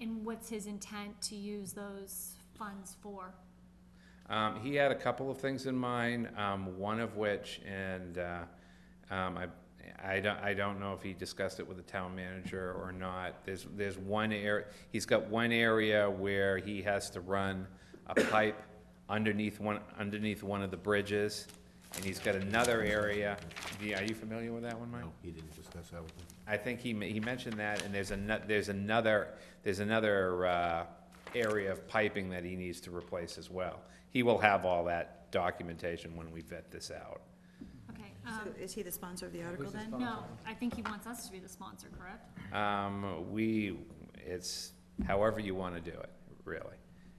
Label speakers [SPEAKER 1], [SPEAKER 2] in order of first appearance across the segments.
[SPEAKER 1] and what's his intent to use those funds for?
[SPEAKER 2] Um, he had a couple of things in mind, um, one of which, and, uh, um, I, I don't, I don't know if he discussed it with the town manager or not. There's, there's one area, he's got one area where he has to run a pipe underneath one, underneath one of the bridges. And he's got another area, Yeah, are you familiar with that one, Mike?
[SPEAKER 3] No, he didn't discuss that with me.
[SPEAKER 2] I think he, ma- he mentioned that, and there's ano, there's another, there's another, uh, area of piping that he needs to replace as well. He will have all that documentation when we vet this out.
[SPEAKER 1] Okay,
[SPEAKER 4] So
[SPEAKER 1] um,
[SPEAKER 4] is he the sponsor of the article then?
[SPEAKER 1] no, I think he wants us to be the sponsor, correct?
[SPEAKER 2] Um, we, it's however you wanna do it, really.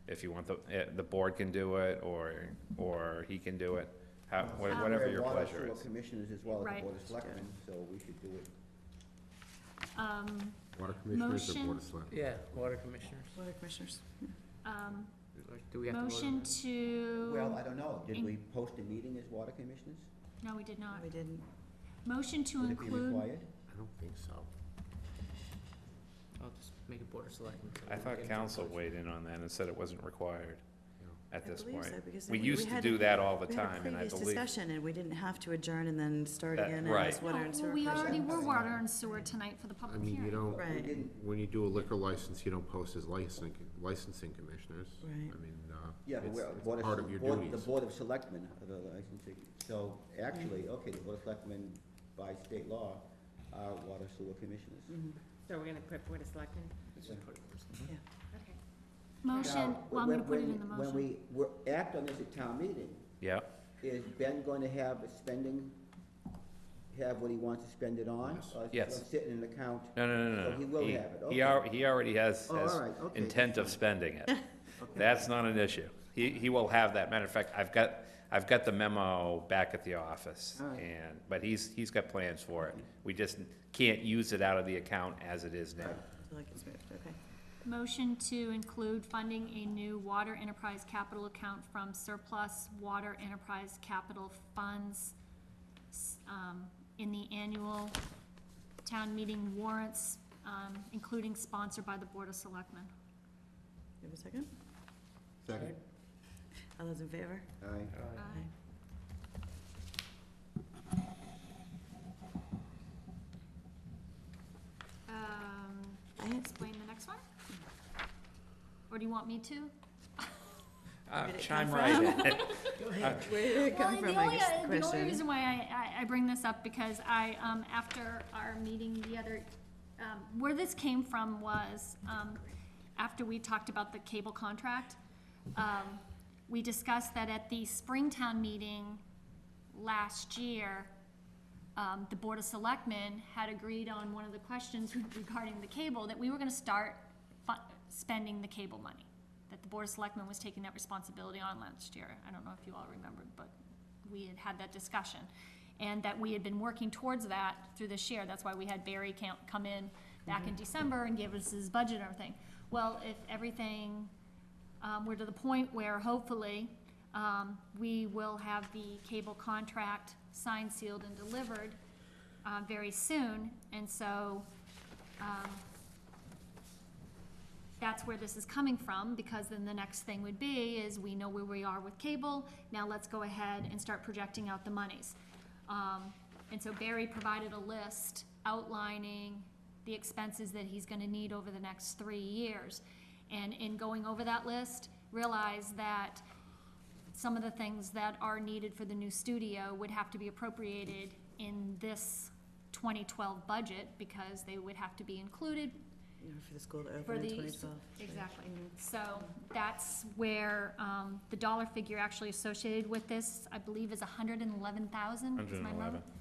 [SPEAKER 2] If you want the, eh, the board can do it, or, or he can do it, how, wha-
[SPEAKER 1] Um,
[SPEAKER 2] whatever your
[SPEAKER 5] There are water
[SPEAKER 2] pleasure
[SPEAKER 5] sewer
[SPEAKER 2] is.
[SPEAKER 5] Commissioners as well as
[SPEAKER 1] Right.
[SPEAKER 5] the Board of Selectmen, so we should do it.
[SPEAKER 1] Um,
[SPEAKER 3] Water commissioners or board of
[SPEAKER 1] Motion.
[SPEAKER 3] selectmen?
[SPEAKER 6] Yeah, water commissioners.
[SPEAKER 4] Board of Commissioners.
[SPEAKER 1] um,
[SPEAKER 6] Like, Do we have to vote on
[SPEAKER 1] motion
[SPEAKER 6] that?
[SPEAKER 5] Well, I
[SPEAKER 1] to,
[SPEAKER 5] don't
[SPEAKER 1] Um,
[SPEAKER 5] know,
[SPEAKER 1] In-
[SPEAKER 5] did we post a meeting as water commissioners?
[SPEAKER 1] no, we did not.
[SPEAKER 4] We didn't.
[SPEAKER 1] Motion to
[SPEAKER 5] Would it be
[SPEAKER 1] include,
[SPEAKER 5] required?
[SPEAKER 3] I don't think so.
[SPEAKER 6] I'll just make it board of selectmen.
[SPEAKER 2] I thought council weighed in on that and said it wasn't required at
[SPEAKER 4] I
[SPEAKER 2] this
[SPEAKER 4] believe
[SPEAKER 2] point.
[SPEAKER 4] so, because
[SPEAKER 2] We
[SPEAKER 4] we- we
[SPEAKER 2] used to
[SPEAKER 4] had-
[SPEAKER 2] do that all the
[SPEAKER 4] We had a
[SPEAKER 2] time, and I
[SPEAKER 4] previous
[SPEAKER 2] believe.
[SPEAKER 4] discussion and we didn't have to adjourn and then start
[SPEAKER 2] That-
[SPEAKER 4] again and
[SPEAKER 2] right.
[SPEAKER 4] ask water and
[SPEAKER 1] Oh,
[SPEAKER 4] sewer.
[SPEAKER 1] well, we
[SPEAKER 4] person.
[SPEAKER 1] already were water and sewer tonight for the
[SPEAKER 3] I
[SPEAKER 1] public
[SPEAKER 3] mean, you
[SPEAKER 1] hearing.
[SPEAKER 3] don't,
[SPEAKER 5] We
[SPEAKER 4] Right.
[SPEAKER 5] didn't,
[SPEAKER 3] when you do a liquor license, you don't post as licensing, licensing commissioners.
[SPEAKER 4] Right.
[SPEAKER 3] I mean, uh,
[SPEAKER 5] yeah, but
[SPEAKER 3] it's,
[SPEAKER 5] we're,
[SPEAKER 3] it's
[SPEAKER 5] Board of,
[SPEAKER 3] part of your
[SPEAKER 5] Board- the
[SPEAKER 3] duties.
[SPEAKER 5] Board of Selectmen are the licensing, so
[SPEAKER 1] Mm.
[SPEAKER 5] actually, okay, the Board of Selectmen by state law are water sewer commissioners.
[SPEAKER 4] Mm-hmm.
[SPEAKER 7] So we're gonna put Board of Selectmen?
[SPEAKER 4] Yeah.
[SPEAKER 1] Okay. Motion,
[SPEAKER 5] Now,
[SPEAKER 1] well, I'm
[SPEAKER 5] when-
[SPEAKER 1] gonna put it
[SPEAKER 5] when-
[SPEAKER 1] in the
[SPEAKER 5] When
[SPEAKER 1] motion.
[SPEAKER 5] we, wo- act on this at town meeting,
[SPEAKER 2] Yeah.
[SPEAKER 5] is Ben going to have a spending, have what he wants to spend it on? Or is it
[SPEAKER 2] Yes.
[SPEAKER 5] gonna sit in an account?
[SPEAKER 2] No, no, no, no.
[SPEAKER 5] So he will
[SPEAKER 2] He-
[SPEAKER 5] have it,
[SPEAKER 2] He
[SPEAKER 5] okay.
[SPEAKER 2] al- he already has,
[SPEAKER 5] Oh,
[SPEAKER 2] has
[SPEAKER 5] all right, okay,
[SPEAKER 2] intent of spending it. That's not an issue. He, he will have that. Matter of fact, I've got, I've got the memo back at the office.
[SPEAKER 5] All right.
[SPEAKER 2] And, but he's, he's got plans for it. We just can't use it out of the account as it is now.
[SPEAKER 4] So like it's moved, okay.
[SPEAKER 1] Motion to include funding a new water enterprise capital account from surplus water enterprise capital funds s- um, in the annual town meeting warrants, um, including sponsored by the Board of Selectmen.
[SPEAKER 4] You have a second?
[SPEAKER 5] Second.
[SPEAKER 4] All those in favor?
[SPEAKER 5] Aye.
[SPEAKER 6] Uh,
[SPEAKER 4] Aye.
[SPEAKER 1] Um,
[SPEAKER 4] I had-
[SPEAKER 1] explain the next one? Or do you want me to?
[SPEAKER 2] Uh,
[SPEAKER 4] did it
[SPEAKER 2] Chime
[SPEAKER 4] come
[SPEAKER 2] right in.
[SPEAKER 4] Where did it come
[SPEAKER 1] Well,
[SPEAKER 4] from,
[SPEAKER 1] the
[SPEAKER 4] I
[SPEAKER 1] only,
[SPEAKER 4] guess,
[SPEAKER 1] uh,
[SPEAKER 4] the
[SPEAKER 1] the only
[SPEAKER 4] question?
[SPEAKER 1] reason why I, I, I bring this up because I, um, after our meeting the other, um, where this came from was, um, after we talked about the cable contract, um, we discussed that at the Springtown meeting last year, um, the Board of Selectmen had agreed on one of the questions regarding the cable, that we were gonna start fu- spending the cable money. That the Board of Selectmen was taking that responsibility on last year. I don't know if you all remembered, but we had had that discussion. And that we had been working towards that through this year, that's why we had Barry count, come in back in December and give us his budget and everything. Well, if everything um, we're to the point where hopefully, um, we will have the cable contract signed, sealed, and delivered, uh, very soon, and so, um, that's where this is coming from, because then the next thing would be is we know where we are with cable, now let's go ahead and start projecting out the monies. Um, and so Barry provided a list outlining the expenses that he's gonna need over the next three years. And in going over that list, realized that some of the things that are needed for the new studio would have to be appropriated in this twenty twelve budget, because they would have to be included
[SPEAKER 4] You know, For the school to
[SPEAKER 1] for
[SPEAKER 4] open in
[SPEAKER 1] the.
[SPEAKER 4] twenty twelve.
[SPEAKER 1] Exactly. So that's where, um, the dollar figure actually associated with this, I believe, is hundred and eleven thousand.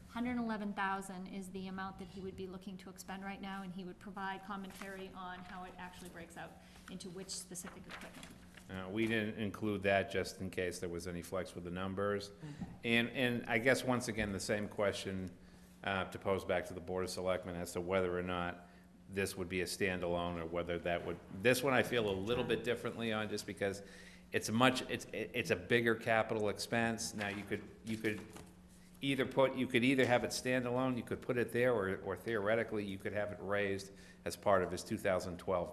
[SPEAKER 1] Hundred and eleven thousand is the amount that he would be looking to expend right now, and he would provide commentary on how it actually breaks out into which specific equipment.
[SPEAKER 2] Uh, we didn't include that just in case there was any flex with the numbers. And, and I guess, once again, the same question, uh, to pose back to the Board of Selectmen as to whether or not this would be a standalone or whether that would, this one I feel a little bit differently on, just because it's a much, it's, it- it's a bigger capital expense. Now, you could, you could either put, you could either have it standalone, you could put it there, or or theoretically, you could have it raised as part of his two thousand twelve